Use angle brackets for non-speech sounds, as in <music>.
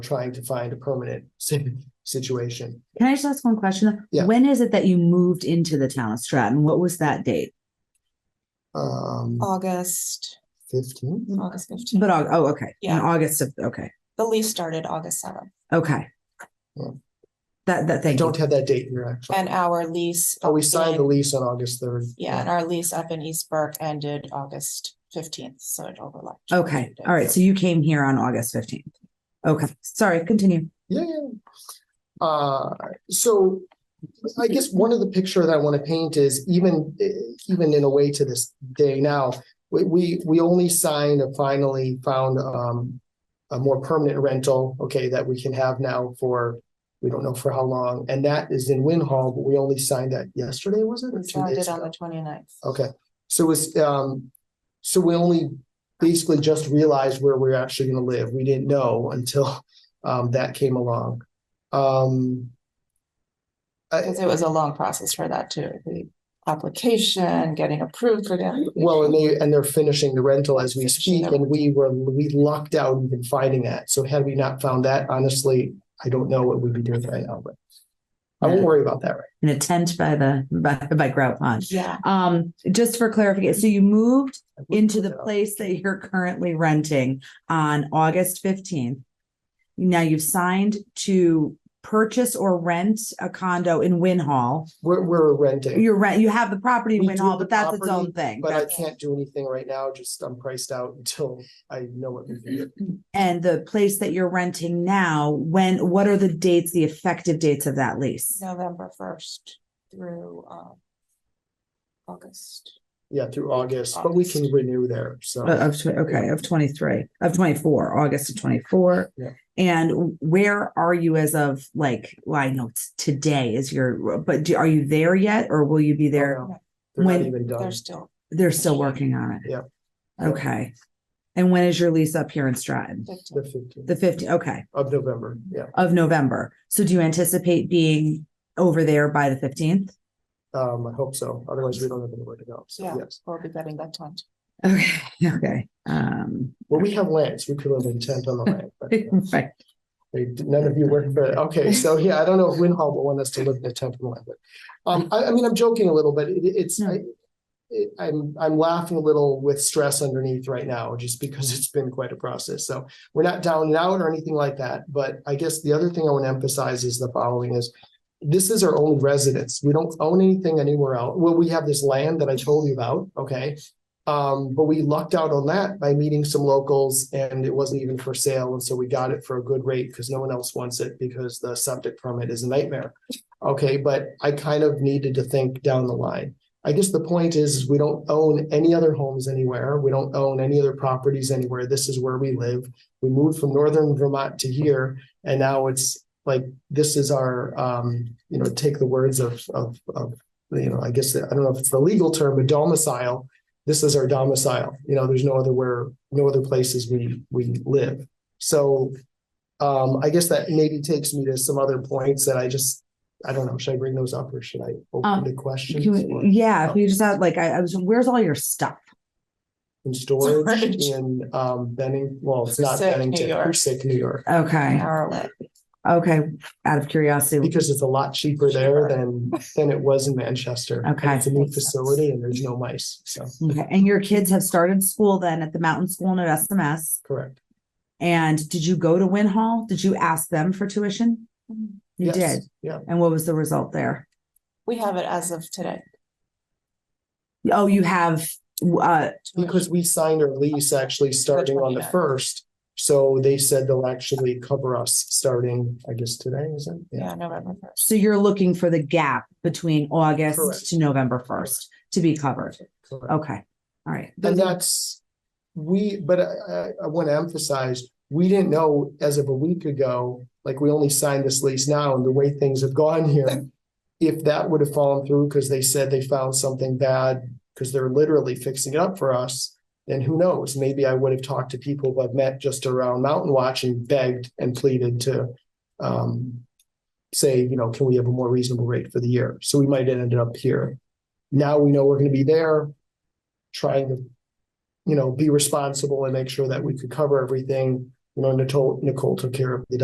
trying to find a permanent <laughs> si- situation. Can I just ask one question? Yeah. When is it that you moved into the town of Stratton? What was that date? Um, Oh. August, fifteen, August fifteenth. But, Au- oh, okay. In Yeah. August of, okay, The lease started August seventh okay. Yeah. That, that, I thank you. don't have that date here actually. and our lease. Oh, we signed the in- lease on August third. Yeah, and our lease up in East Burke ended August fifteenth, so it overlapped. Okay, all right. So you came here on August fifteenth. Okay, sorry, continue. Yeah, yeah. Uh, so I guess one of the picture that I want to paint is even, even in a way to this day now, we, we, we only signed a finally found, um, a more permanent rental, okay, that we can have now for, we don't know for how long, and that is in Winhall, but we only signed that yesterday, was it? or We two signed days it on ago? the 29th. Okay, so it's, um, so we only basically just realized where we're actually gonna live. We didn't know until, um, that came along. Um. I, Because it was a long process for that too, the application, getting approved for that. well, and they, and they're finishing the rental as we Finishing speak, the- and we were, we lucked out even finding that. So had we not found that, honestly, I don't know what we'd be doing right now, but. I won't worry about that, right? In a tent by the, by, by Grout Pond. Yeah, Um, just for clarification, so you moved now. into the place that you're currently renting on August fifteenth. Now you've signed to purchase or rent a condo in Win Hall. We're, we're renting, You're rent, you have the property in We Win do Hall, have but the that's its property, own thing. but I That's- can't do anything right now, just I'm priced out until I know what we can do. And the place that you're renting now, when, what are the dates, the effective dates of that lease? November first through um. August. Yeah, through August, but we can August. renew there, so. Uh, Of, tw- okay, of twenty-three, of twenty-four, August of twenty-four. Yeah. And where are you as of like, well, I know it's today is your, but do- are you there yet or will you be there? Oh, no, They're not when- even done. They're still, They're still working on it. Yep. Okay. And when is your lease up here in Stratton? The 15. The fifteenth fifty, okay, of November, yeah. of November. So do you anticipate being over there by the fifteenth? Um, I hope so. Otherwise, we don't have anywhere to go. So, Yeah. yes. we'll be getting that done. Okay, okay, um. Well, we have lands. We could live in tent on the land, but <laughs> uh, Right. they, none of you work for it. Okay, so yeah, I don't know if Winhall will want us to live in a tent on the land, but. Um, I, I mean, I'm joking a little, but it, it's, No. I, it- I'm, I'm laughing a little with stress underneath right now, just because it's been quite a process. So we're not down and out or anything like that, but I guess the other thing I want to emphasize is the following is this is our only residence. We don't own anything anywhere else. Well, we have this land that I told you about, okay? Um, but we lucked out on that by meeting some locals and it wasn't even for sale. And so we got it for a good rate because no one else wants it because the septic permit is a nightmare. Okay, but I kind of needed to think down the line. I guess the point is, is we don't own any other homes anywhere. We don't own any other properties anywhere. This is where we live. We moved from northern Vermont to here and now it's like, this is our, um, you know, take the words of, of, of, you know, I guess, I don't know if it's the legal term, but domicile this is our domicile, you know, there's no other where, no other places we, we live. So, um, I guess that maybe takes me to some other points that I just, I don't know, should I bring those up or should I open Um, the questions? Can we- or- Yeah, if you just had like, I, I was, where's all your stuff? <laughs> In storage Storage. in, um, Benning, well, it's not Sick, New Bennington, York. Hoosac, New York. An Okay, hour away. okay, out of curiosity. Because it's a lot cheaper there than, than it was in Manchester. And Okay. It's a new Makes sense. facility and there's no mice, so, Okay, and your kids have started school then at the Mountain School and at SMS? correct. And did you go to Win Hall? Did you ask them for tuition? You Yes, did. Yeah, And what was the result there? We have it as of today. Oh, you have, uh, Because we signed our lease actually starting on the 29th. first, so they said they'll actually cover us starting, I guess, today, is it? Yeah, November first. so you're looking for the gap between Correct. August to November first to be covered. Correct. Okay, all right. And that's, we, but I, I, I want to emphasize, we didn't know as of a week ago, like, we only signed this lease now, and the way things have gone here. If that would have fallen through, because they said they found something bad, because they're literally fixing it up for us. Then who knows, maybe I would have talked to people I've met just around Mountain Watch and begged and pleaded to. Um, say, you know, can we have a more reasonable rate for the year? So we might have ended up here. Now we know we're gonna be there trying to, you know, be responsible and make sure that we could cover everything. You know, Nicole, Nicole took care of the